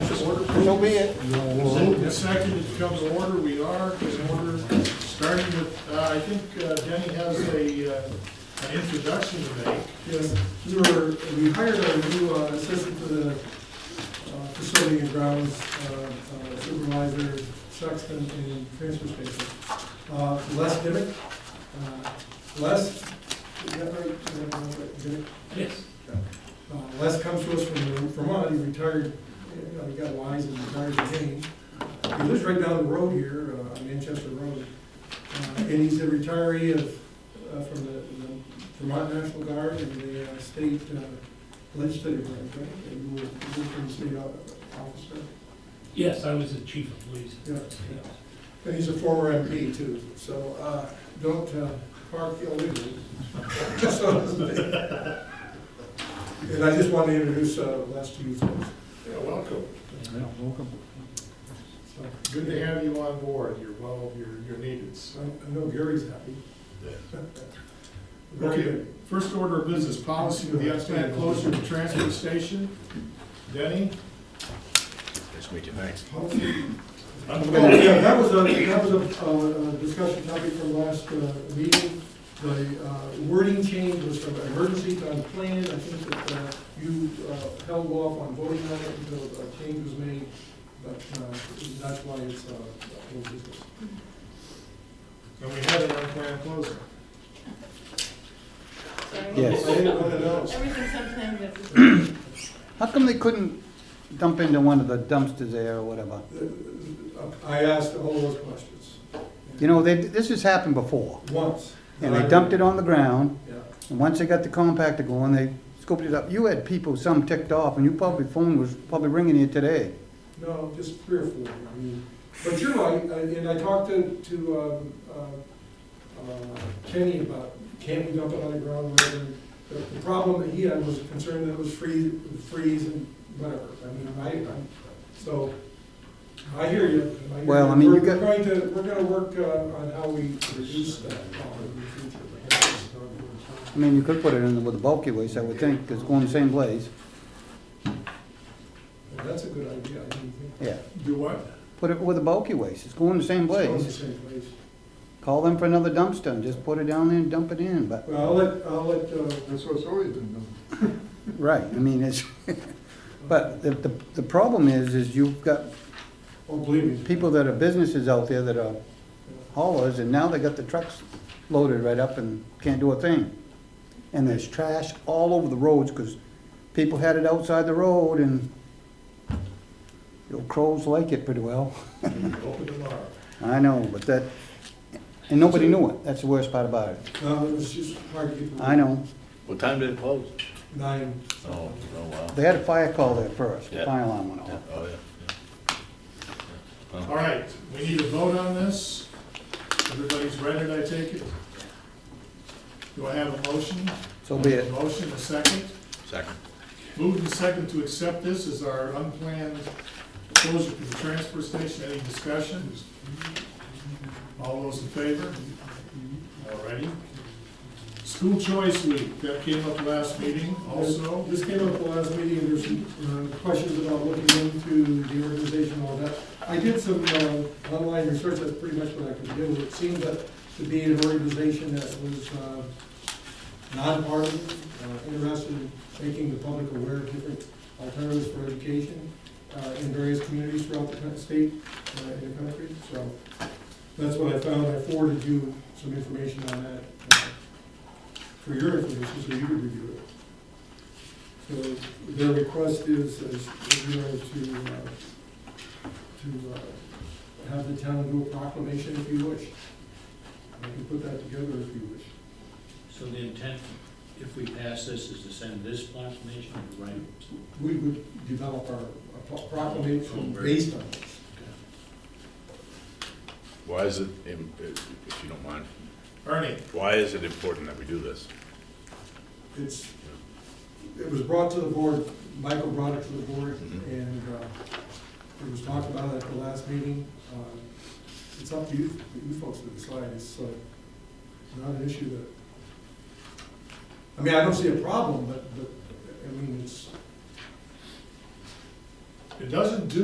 So be it. Moved and seconded to come to order, we are in order, starting with, uh, I think uh, Denny has a, uh, an introduction to make. Yes, we were, we hired a new uh, assistant to the uh, facility and grounds uh, uh, supervisor, sexton, and transfer station. Uh, Les Dimick. Uh, Les, is that right? Is that right? Dimick? Yes. Uh, Les comes to us from Vermont, he retired, uh, he got wise and retired to Maine. He lives right down the road here, uh, on Manchester Road. Uh, And he's a retiree of, uh, from the the Vermont National Guard and the uh, state uh, legislative branch, right? And you were, you were from the state o- officer. Yes, I was the chief of police. Yeah. And he's a former MP too, so uh, don't uh, park illegally. So to speak. And I just want to introduce uh, Les to you folks. Yeah, welcome. So, Good to have you on board, you're well, you're, you're needed, so. I- I know Gary's happy. Very Okay, good. first order of business, policy with the unplanned closure of the transfer station. Denny? Nice to meet you, thanks. Oh, yeah, that was a, that was a, uh, a discussion topic from last uh, meeting. The uh, wording change was from emergency to unplanned. I think that uh, you uh, held off on voting on it until a change was made, but uh, that's why it's, uh, old business. And we had an unplanned closure. Yes. I didn't want to know. Everything's unplanned, but How come they couldn't dump into one of the dumpsters there or whatever? I asked all those questions. You know, they, this has happened before, Once. and they dumped it on the ground, Yeah. and once they got the compactor going, they scooped it up. You had people, some ticked off, and you probably, phone was probably ringing you today. No, just three or four, I mean, but you're right, I- and I talked to, to, um, uh, uh, Kenny about, can we dump it on the ground, or whatever. The, the problem that he had was a concern that it was freeze, freeze and whatever, I mean, I, I'm, so, I hear you. hear Well, I mean, you We're- got- We're going to, we're gonna work, uh, on how we reduce that problem in the future. perhaps. I mean, you could put it in with a bulky waste, I would think, 'cause it's going the same place. Well, That's a good idea, I didn't think. Yeah, Do what? put it with a bulky waste, it's going the same It's all in the place. same place. Call them for another dumpster and just put it down there and dump it in, but, Well, I'll let, I'll let, uh, That's what's always been done. right, I mean, it's, but the, the, the problem is, is you've got oh, believe me. people that are businesses out there that are haulers, and now they got the trucks loaded right up and can't do a thing. And there's trash all over the roads, because people had it outside the road, and your crows like it pretty well. Open tomorrow. I know, but that, and nobody knew it, that's the worst part about it. No, Uh, it was just hard to get. the- I know, What time did it close? Nine. Oh, oh, wow. they had a fire call there first, the Yeah. fire alarm went Yeah, off. Oh, yeah. All right, we need a vote on this. Everybody's read it, I take it? Do I have a motion? So be it, Motion, a second. Second. Moved and second to accept this as our unplanned closure to the transfer station. Any discussion? All those in favor? All righty. School choice week, that came up last meeting also. This came up the last meeting, and there's some uh, questions about looking into the organization and all that. I did some uh, online research, that's pretty much what I could do. It seemed that to be an organization that was uh, nonpartisan, uh, interested in making the public aware of different alternatives for education uh, in various communities throughout the coun- state uh, and the country. So that's what I found. I forwarded you some information on that uh, for your information, so you could review it. So their request is, is, you know, to, uh, to uh, have the town do a proclamation if you wish. I can put that together if you wish. So the intent, if we pass this, is to send this proclamation and write it. We would develop our a pro- proclamation based on this. Why is it, im- if you don't mind, Ernie, why is it important that we do this? It's, it was brought to the board, Michael brought it to the board, and uh, it was talked about at the last meeting. Uh, It's up to you, you folks to decide, it's uh, not an issue that, I mean, I don't see a problem, but, but, I mean, it's, it doesn't do